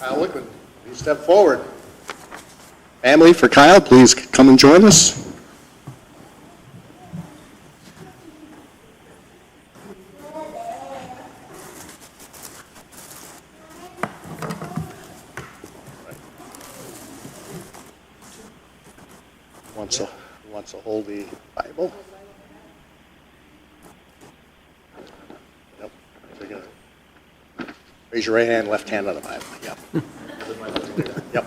Kyle Wickman, please step forward. Family for Kyle, please come and join us. Wants to, wants to hold the Bible? Nope. They're gonna- Raise your right hand, left hand on the Bible, yep. Yep.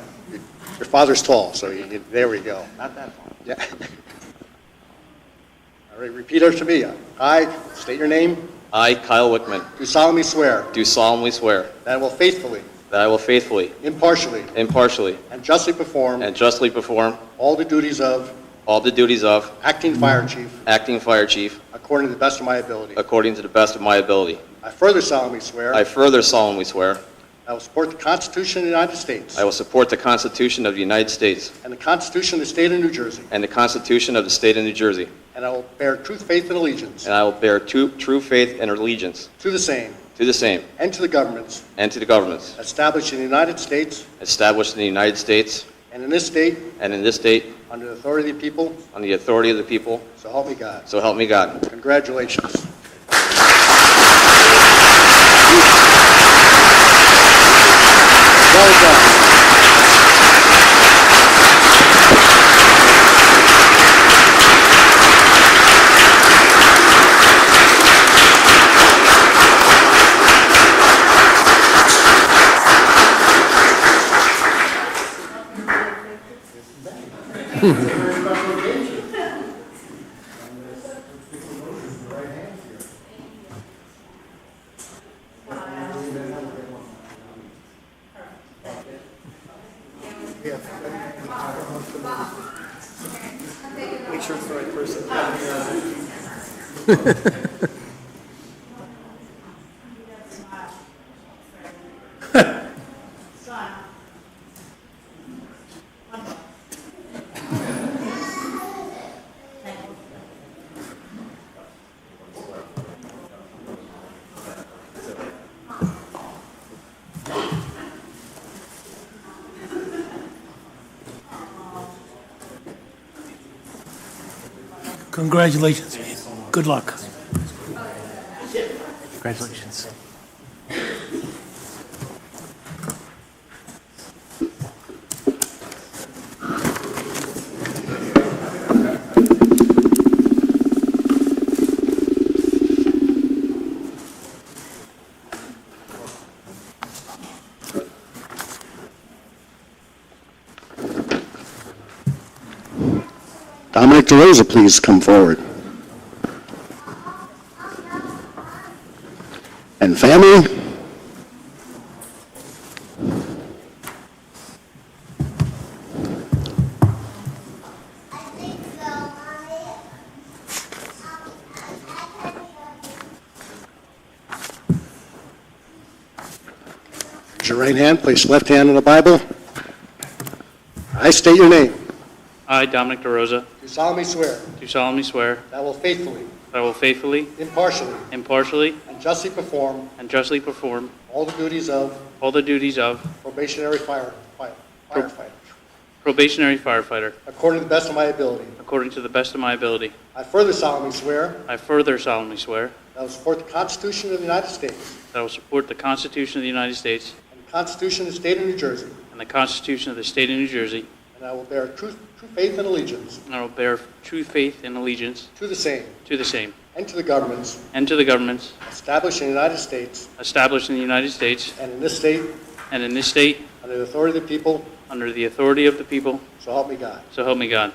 Your father's tall, so you, you- there we go. Not that tall. Yeah. All right, repeat after me. I state your name, I, Kyle Wickman, do solemnly swear do solemnly swear that I will faithfully, that I will faithfully, impartially, impartially, and justly perform and justly perform all the duties of all the duties of acting fire chief acting fire chief according to the best of my ability. according to the best of my ability. I further solemnly swear I further solemnly swear I will support the Constitution of the United States I will support the Constitution of the United States and the Constitution of the State of New Jersey, and the Constitution of the State of New Jersey, and I will bear true faith and allegiance and I will bear true true faith and allegiance to the same to the same and to the governments and to the governments established in the United States established in the United States and in this state and in this state under the authority of the people, on the authority of the people, so help me God. so help me God. Congratulations. Well done. Congratulations. Good luck. Congratulations. Dominic DeRosa, please come forward. And family? Raise your right hand, place left hand on the Bible. I state your name. I, Dominic DeRosa, Do solemnly swear. do solemnly swear That I will faithfully, that I will faithfully, impartially, impartially, and justly perform and justly perform all the duties of all the duties of probationary fire fire- firefighter probationary firefighter according to the best of my ability. according to the best of my ability. I further solemnly swear I further solemnly swear that I will support the Constitution of the United States that I will support the Constitution of the United States and the Constitution of the State of New Jersey, and the Constitution of the State of New Jersey, and I will bear true true faith and allegiance and I will bear true faith and allegiance to the same to the same and to the governments and to the governments established in the United States established in the United States and in this state and in this state under the authority of the people, under the authority of the people, so help me God. so help me God.